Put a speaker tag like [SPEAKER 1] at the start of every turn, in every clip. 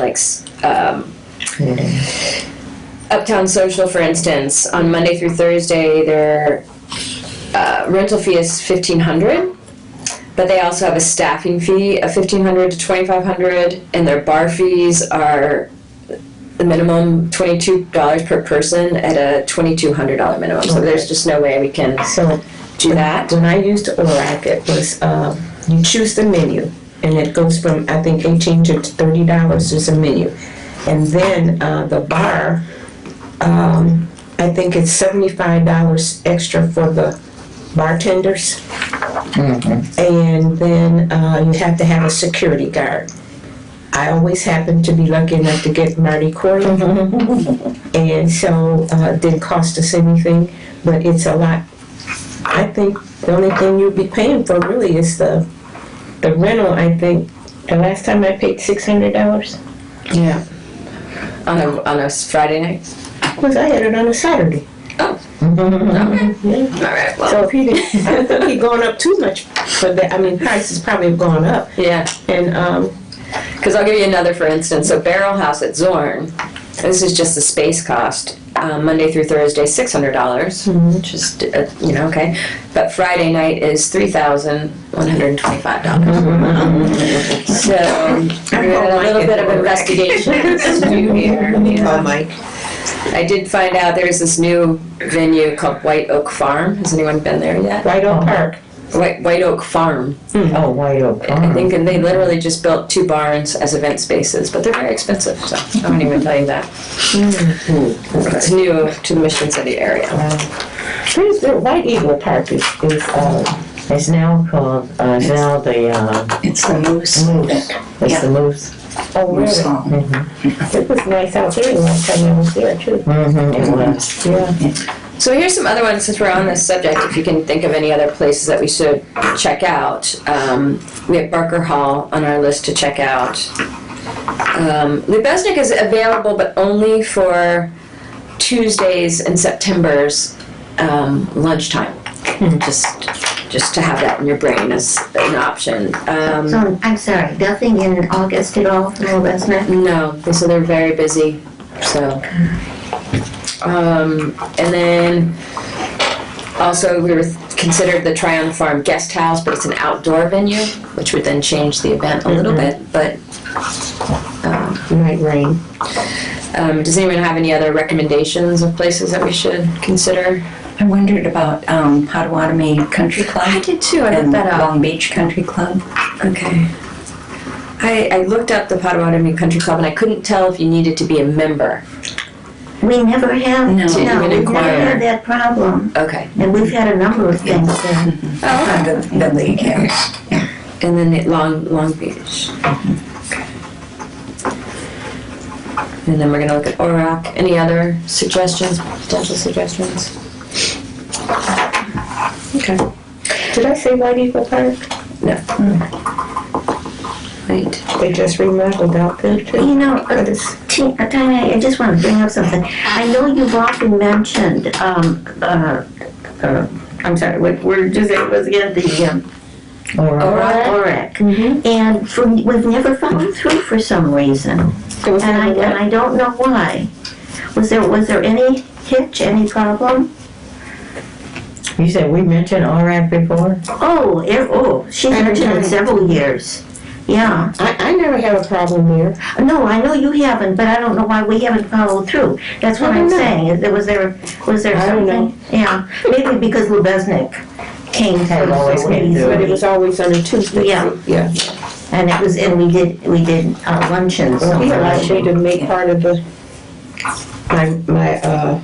[SPEAKER 1] like um, Uptown Social, for instance, on Monday through Thursday, their uh, rental fee is fifteen hundred, but they also have a staffing fee of fifteen hundred to twenty five hundred, and their bar fees are the minimum twenty two dollars per person at a twenty two hundred dollar minimum. So there's just no way we can
[SPEAKER 2] So
[SPEAKER 1] do that.
[SPEAKER 2] when I used ORAC, it was, um, you choose the menu, and it goes from, I think, eighteen to thirty dollars is a menu. And then, uh, the bar, um, I think it's seventy-five dollars extra for the bartenders. And then, uh, you have to have a security guard. I always happen to be lucky enough to get Marty Corley. And so, uh, it didn't cost us anything, but it's a lot I think the only thing you'd be paying for really is the, the rental, I think. The last time I paid six hundred dollars
[SPEAKER 1] Yeah. On a on a Friday night. Oh.
[SPEAKER 2] was I had it on a Saturday.
[SPEAKER 3] Mm-hmm.
[SPEAKER 1] All right. Well.
[SPEAKER 2] So if he didn't, I think he gone up too much for that. I mean, prices probably have gone up.
[SPEAKER 1] Yeah.
[SPEAKER 2] And, um,
[SPEAKER 1] Because I'll give you another for instance. So Barrel House at Zorn, this is just the space cost. Um, Monday through Thursday, six hundred dollars,
[SPEAKER 2] Mm-hmm.
[SPEAKER 1] which is uh, you know okay, but Friday night is three thousand one hundred twenty-five dollars.
[SPEAKER 2] Mm-hmm.
[SPEAKER 1] So we're at
[SPEAKER 2] hope
[SPEAKER 1] a
[SPEAKER 2] Mike
[SPEAKER 1] little
[SPEAKER 2] is
[SPEAKER 1] bit of
[SPEAKER 2] correct.
[SPEAKER 1] investigation to do here.
[SPEAKER 2] oh, Mike.
[SPEAKER 1] I did find out there's this new venue called White Oak Farm. Has anyone been there yet?
[SPEAKER 2] White Oak Park.
[SPEAKER 1] White, White Oak Farm.
[SPEAKER 3] Oh, White Oak
[SPEAKER 1] I
[SPEAKER 3] Farm.
[SPEAKER 1] think, and they literally just built two barns as event spaces, but they're very expensive, so I won't even tell you that. It's new to the Mission City area.
[SPEAKER 3] Where's the White Eagle Park is, is, uh, is now called, uh, now the, uh,
[SPEAKER 4] It's the moose.
[SPEAKER 3] Moose. It's the Moose.
[SPEAKER 2] Oh, really?
[SPEAKER 4] Moose Hall.
[SPEAKER 2] It was nice out there the last time I was there too.
[SPEAKER 3] Mm-hmm, it was.
[SPEAKER 2] Yeah.
[SPEAKER 1] So here's some other ones, since we're on this subject, if you can think of any other places that we should check out. Um, we have Barker Hall on our list to check out. Um, Lubesnik is available, but only for Tuesdays and September's um, lunchtime. Just, just to have that in your brain as an option. Um,
[SPEAKER 5] So, I'm sorry, nothing in August at all, no, that's not.
[SPEAKER 1] No, they so they're very busy. So, um, and then also we were considered the Tryon Farm Guest House, but it's an outdoor venue, which would then change the event a little bit. But
[SPEAKER 2] Night rain.
[SPEAKER 1] um, does anyone have any other recommendations of places that we should consider?
[SPEAKER 4] I wondered about um, Potawatomi Country
[SPEAKER 1] I
[SPEAKER 4] Club
[SPEAKER 1] did too. I uh, looked
[SPEAKER 4] and
[SPEAKER 1] that up.
[SPEAKER 4] Long Beach Country Club.
[SPEAKER 1] Um, Okay. I, I looked up the Potawatomi Country Club and I couldn't tell if you needed to be a member.
[SPEAKER 5] We never have,
[SPEAKER 4] No.
[SPEAKER 5] no,
[SPEAKER 4] To
[SPEAKER 5] we
[SPEAKER 1] even
[SPEAKER 5] never
[SPEAKER 1] inquire.
[SPEAKER 5] had that problem,
[SPEAKER 1] Okay.
[SPEAKER 5] and we've had a number of things there.
[SPEAKER 1] Oh,
[SPEAKER 4] Uh, The the league house.
[SPEAKER 1] And then it Long, Long Beach. Okay. And then we're gonna look at ORAC. Any other suggestions, potential suggestions? Okay.
[SPEAKER 2] Did I say White Eagle Park?
[SPEAKER 1] Right.
[SPEAKER 2] They just remodeled out there too.
[SPEAKER 5] You know, uh,
[SPEAKER 2] But it's-
[SPEAKER 5] T- uh, Tanya, I just want to bring up something. I know you've often mentioned, um, uh, uh, I'm sorry, what word did you say it was again? The, um,
[SPEAKER 3] Or,
[SPEAKER 5] ORAC.
[SPEAKER 1] Mm-hmm.
[SPEAKER 5] And for, we've never followed through for some reason.
[SPEAKER 1] It was
[SPEAKER 5] And I,
[SPEAKER 1] number
[SPEAKER 5] and
[SPEAKER 1] one.
[SPEAKER 5] I don't know why. Was there, was there any hitch, any problem?
[SPEAKER 3] you said we mentioned ORAC before?
[SPEAKER 5] Oh, it, oh, she's
[SPEAKER 2] Every
[SPEAKER 5] mentioned
[SPEAKER 2] time.
[SPEAKER 5] it several years. Yeah.
[SPEAKER 2] I, I never had a problem there.
[SPEAKER 5] No, I know you haven't, but I don't know why we haven't followed through. That's what
[SPEAKER 2] I
[SPEAKER 5] I'm
[SPEAKER 2] don't know.
[SPEAKER 5] saying. Is there- Was there, was there
[SPEAKER 2] I don't know.
[SPEAKER 5] something? Yeah, maybe because Lubesnik came
[SPEAKER 3] Had
[SPEAKER 5] through
[SPEAKER 3] always
[SPEAKER 5] so
[SPEAKER 3] came through.
[SPEAKER 2] But it
[SPEAKER 5] easily.
[SPEAKER 2] was always on a Tuesday.
[SPEAKER 5] Yeah.
[SPEAKER 2] Yeah.
[SPEAKER 5] And it was, and we did, we did uh, luncheons.
[SPEAKER 2] Well, we
[SPEAKER 5] somewhere.
[SPEAKER 2] allowed you to make part of the, my, my, uh,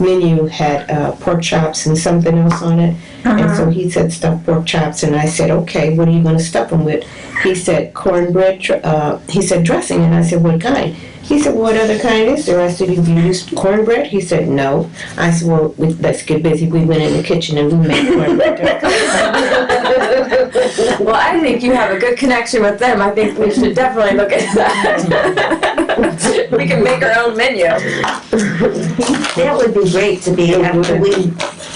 [SPEAKER 2] menu had, uh, pork chops and something else on it. And so he said stuffed pork chops, and I said, okay, what are you gonna stuff them with? He said cornbread, dr- uh, he said dressing, and I said, what kind? He said, what other kind is there? I said, you can use cornbread? He said, no. I said, well, we- let's get busy. We went in the kitchen and we made cornbread dressing.
[SPEAKER 1] Well, I think you have a good connection with them. I think we should definitely look at that. We can make our own menu.
[SPEAKER 5] That would be great to be, able to- we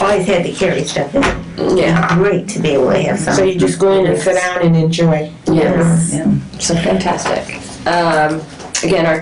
[SPEAKER 5] always had to carry stuff. It would
[SPEAKER 1] Yeah.
[SPEAKER 5] be great to be able to have
[SPEAKER 2] So
[SPEAKER 5] some.
[SPEAKER 2] you just go in and sit down and enjoy.
[SPEAKER 1] Yes.
[SPEAKER 4] Yeah.
[SPEAKER 1] So fantastic. Um, again, our